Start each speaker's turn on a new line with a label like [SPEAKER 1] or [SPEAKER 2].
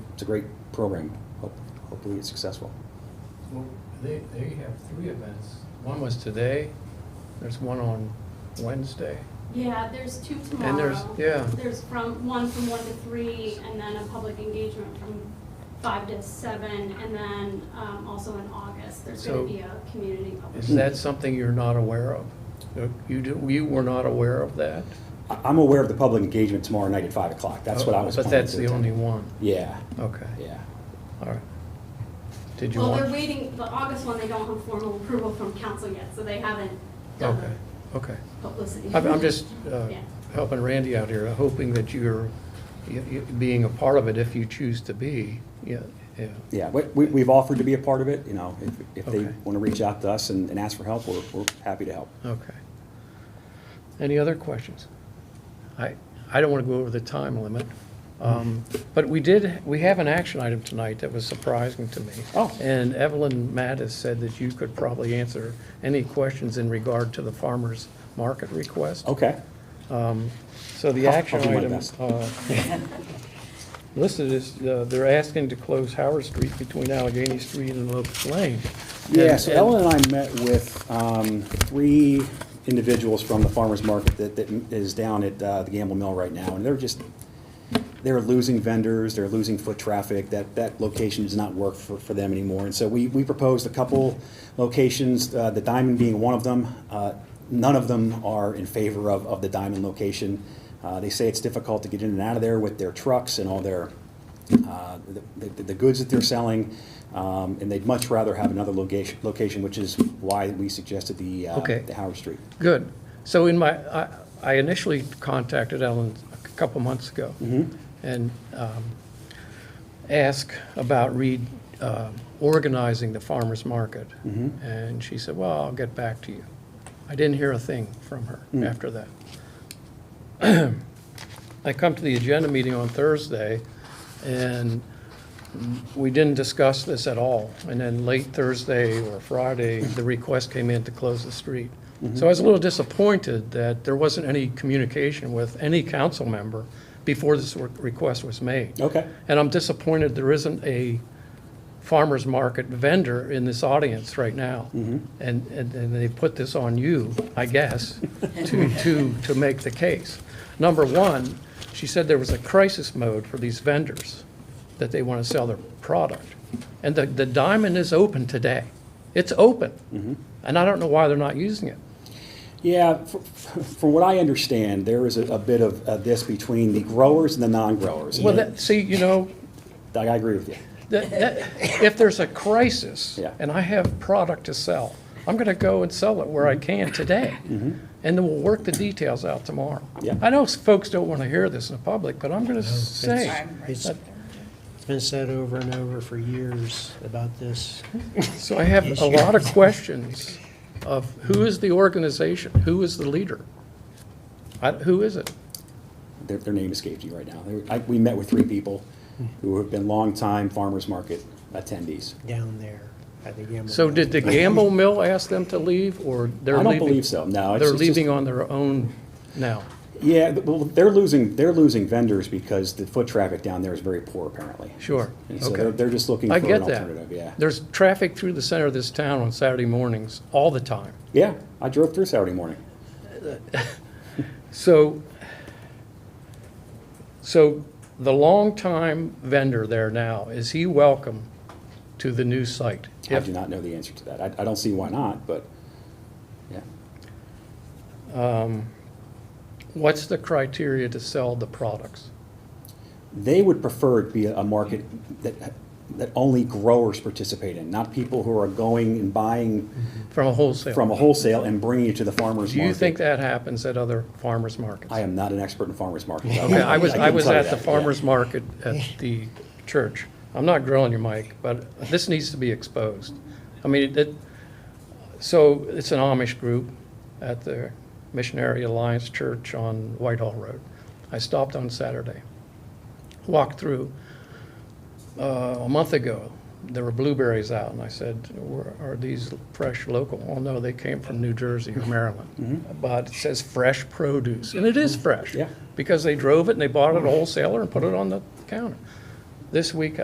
[SPEAKER 1] It's a great program. Hope- Hopefully it's successful.
[SPEAKER 2] Well, they, they have three events. One was today, there's one on Wednesday.
[SPEAKER 3] Yeah, there's two tomorrow.
[SPEAKER 2] And there's- yeah.
[SPEAKER 3] There's from, one from one to three, and then a public engagement from five to seven, and then, um, also in August, there's
[SPEAKER 2] So-
[SPEAKER 3] gonna be a community public.
[SPEAKER 2] Is
[SPEAKER 1] Hmm.
[SPEAKER 2] that something you're not aware of? You do, you were not aware of that?
[SPEAKER 1] I- I'm aware of the public engagement tomorrow night at five o'clock. That's what I was
[SPEAKER 2] Oh, But
[SPEAKER 1] planning
[SPEAKER 2] that's
[SPEAKER 1] to
[SPEAKER 2] the
[SPEAKER 1] attend.
[SPEAKER 2] only one,
[SPEAKER 1] Yeah,
[SPEAKER 2] okay,
[SPEAKER 1] yeah.
[SPEAKER 2] all right. Did you
[SPEAKER 3] Well, they're
[SPEAKER 2] want?
[SPEAKER 3] waiting, the August one, they don't have formal approval from council yet, so they haven't done
[SPEAKER 2] Okay,
[SPEAKER 3] the
[SPEAKER 2] okay.
[SPEAKER 3] publicity.
[SPEAKER 2] I'm, I'm just uh,
[SPEAKER 3] Yeah.
[SPEAKER 2] helping Randy out here, hoping that you're, you- you- being a part of it if you choose to be, yeah, yeah.
[SPEAKER 1] Yeah, we- we- we've offered to be a part of it, you know, if- if they
[SPEAKER 2] Okay.
[SPEAKER 1] want to reach out to us and and ask for help, we're we're happy to help.
[SPEAKER 2] Okay. Any other questions? I, I don't want to go over the time limit, um, but we did, we have an action item tonight that was surprising to me.
[SPEAKER 1] Oh.
[SPEAKER 2] And Evelyn Mattis said that you could probably answer any questions in regard to the farmer's market request.
[SPEAKER 1] Okay,
[SPEAKER 2] So the
[SPEAKER 1] Oh. I'll- I'll
[SPEAKER 2] action
[SPEAKER 1] do my
[SPEAKER 2] item
[SPEAKER 1] best.
[SPEAKER 2] uh, listed is, uh, they're asking to close Howard Street between Allegheny Street and Locust Lane.
[SPEAKER 1] yeah,
[SPEAKER 2] And-
[SPEAKER 1] so
[SPEAKER 2] and-
[SPEAKER 1] Ellen and I met with um, three individuals from the farmer's market that that is down at uh, the Gamble Mill right now, and they're just, they're losing vendors, they're losing foot traffic, that, that location does not work for, for them anymore. And so we, we proposed a couple locations, uh, the Diamond being one of them. Uh, None of them are in favor of, of the Diamond location. Uh, They say it's difficult to get in and out of there with their trucks and all their, uh, the, the- the goods that they're selling. Um, And they'd much rather have another location, location, which is why we suggested the, uh,
[SPEAKER 2] Okay.
[SPEAKER 1] the Howard Street.
[SPEAKER 2] Good. So in my, I- I initially contacted Ellen a couple months ago and um, asked about re, um, organizing the farmer's market. And she said, well, I'll get back to you. I didn't hear a thing from her after that. I come to the agenda meeting on Thursday, and we didn't discuss this at all. And then late Thursday or Friday, the request came in to close the street. So I was a little disappointed that there wasn't any communication with any council member before this re- request was made.
[SPEAKER 1] Okay.
[SPEAKER 2] And I'm disappointed there isn't a farmer's market vendor in this audience right now. And, and, and they put this on you, I guess, to, to, to make the case. Number one, she said there was a crisis mode for these vendors, that they want to sell their product. And the, the diamond is open today. It's open. And I don't know why they're not using it.
[SPEAKER 1] Yeah, fr- fr- from what I understand, there is a a bit of uh, this between the growers and the non-growers.
[SPEAKER 2] Well, that, see, you know,
[SPEAKER 1] Doug, I agree with you.
[SPEAKER 2] That- that- If there's a crisis
[SPEAKER 1] Yeah.
[SPEAKER 2] and I have product to sell, I'm going to go and sell it where
[SPEAKER 1] Mm-hmm.
[SPEAKER 2] I can today. And then we'll work the details out tomorrow.
[SPEAKER 1] Yeah.
[SPEAKER 2] I know folks don't want to hear this in the public, but I'm going to say,
[SPEAKER 4] It's it's been said over and over for years about this.
[SPEAKER 2] so I have a lot of questions of who is the organization? Who is the leader? I- Who is it?
[SPEAKER 1] Their, their name escapes you right now. They were- I- We met with three people who have been longtime farmers market attendees.
[SPEAKER 4] down there at the Gamble.
[SPEAKER 2] So
[SPEAKER 4] Mill.
[SPEAKER 2] did the Gamble Mill ask them to leave or they're
[SPEAKER 1] I
[SPEAKER 2] leaving?
[SPEAKER 1] don't believe so, no. it's-
[SPEAKER 2] They're
[SPEAKER 1] it's just-
[SPEAKER 2] leaving on their own now?
[SPEAKER 1] Yeah, th- well, they're losing, they're losing vendors because the foot traffic down there is very poor apparently.
[SPEAKER 2] Sure,
[SPEAKER 1] And so
[SPEAKER 2] okay.
[SPEAKER 1] they're, they're just looking for
[SPEAKER 2] I
[SPEAKER 1] an
[SPEAKER 2] get that.
[SPEAKER 1] alternative, yeah.
[SPEAKER 2] There's traffic through the center of this town on Saturday mornings all the time.
[SPEAKER 1] Yeah, I drove through Saturday morning.
[SPEAKER 2] So, so the longtime vendor there now, is he welcome to the new site?
[SPEAKER 1] I
[SPEAKER 2] If-
[SPEAKER 1] do not know the answer to that. I, I don't see why not, but, yeah.
[SPEAKER 2] What's the criteria to sell the products?
[SPEAKER 1] They would prefer it be a a market that, that only growers participate in, not people who are going and buying
[SPEAKER 2] From a wholesale?
[SPEAKER 1] from a wholesale and bringing it to the farmer's
[SPEAKER 2] Mm-hmm. Do
[SPEAKER 1] market.
[SPEAKER 2] you think that happens at other farmers markets?
[SPEAKER 1] I am not an expert in farmer's markets.
[SPEAKER 2] Okay, I was, I
[SPEAKER 1] couldn't
[SPEAKER 2] was
[SPEAKER 1] tell you
[SPEAKER 2] at the
[SPEAKER 1] that, yeah.
[SPEAKER 2] farmer's market at the church. I'm not grilling you, Mike, but this needs to be exposed. I mean, it, so it's an Amish group at the Missionary Alliance Church on Whitehall Road. I stopped on Saturday, walked through. Uh, a month ago, there were blueberries out, and I said, "Were- are these fresh local? Well, no, they came from New Jersey or Maryland. But it says fresh produce, and it is fresh.
[SPEAKER 1] Yeah.
[SPEAKER 2] Because they drove it and they bought it at a wholesaler and put it on the counter. This week,